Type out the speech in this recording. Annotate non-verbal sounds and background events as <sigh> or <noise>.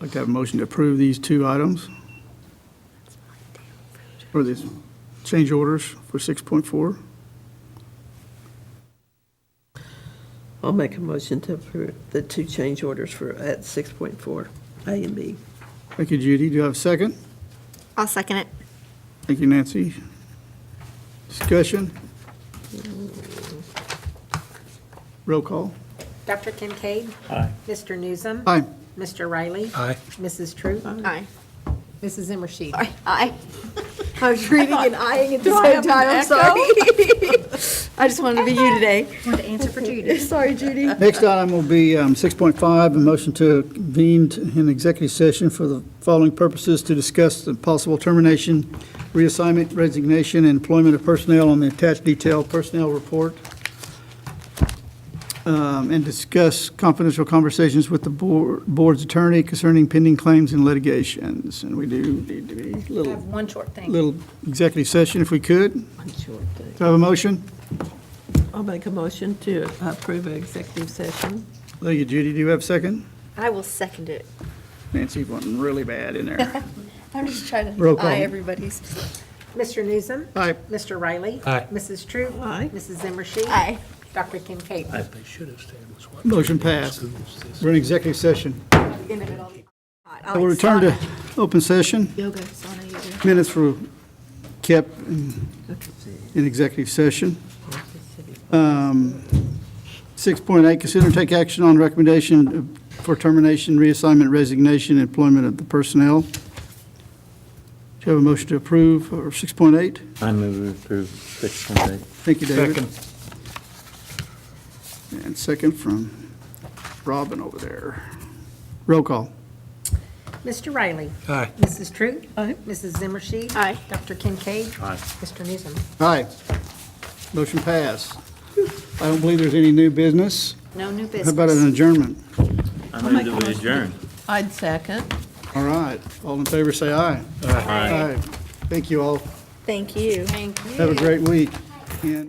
like to have a motion to approve these two items. Or these change orders for 6.4. I'll make a motion to approve the two change orders for, at 6.4, A and B. Thank you, Judy. Do you have a second? I'll second it. Thank you, Nancy. Discussion? Roll call. Dr. Kincaid? Aye. Mr. Newsom? Aye. Mr. Riley? Aye. Mrs. Troop? Aye. Mrs. Zimmershed. Aye. Aye. <laughs> I was reading and eyeing at the I same have an time, I'm sorry. <laughs> I just wanted to be you today. Wanted to answer for Judy. Sorry, Judy. Next item will be um, 6.5, a motion to convene an executive session for the following purposes to discuss the possible termination, reassignment, resignation, and employment of personnel on the attached detailed personnel report, um, and discuss confidential conversations with the board- board's attorney concerning pending claims and litigations. And we do need to be a I have little, one short thing. little executive session if we could. Do One short thing. I have a motion? I'll make a motion to approve an executive session. Thank you, Judy. Do you have a second? I will second it. Nancy wanting really bad <laughs> in there. I'm just trying Roll to call. eye everybody's. Mr. Newsom? Aye. Mr. Riley? Aye. Mrs. Troop? Aye. Mrs. Zimmershed? Aye. Dr. Kincaid? I- They should have stayed with what. Motion passed. Schools this- We're in executive session. I'll We'll return to open session. Yoga, sauna, yoga. Minutes were kept in in executive session. Um, 6.8, consider and take action on recommendation for termination, reassignment, resignation, and employment of the personnel. Do you have a motion to approve, or 6.8? I move we approve six point eight. Thank you, David. And second from Robin over there. Roll call. Mr. Riley? Aye. Mrs. Troop? Aye. Mrs. Zimmershed? Aye. Dr. Kincaid? Aye. Mr. Newsom? Aye. Motion passed. I don't believe there's any new business. No new How about an business. adjournment? I move that we adjourn. I'd second. All right, all in favor, say aye. Aye. Thank you all. Thank you. Have a great week. And-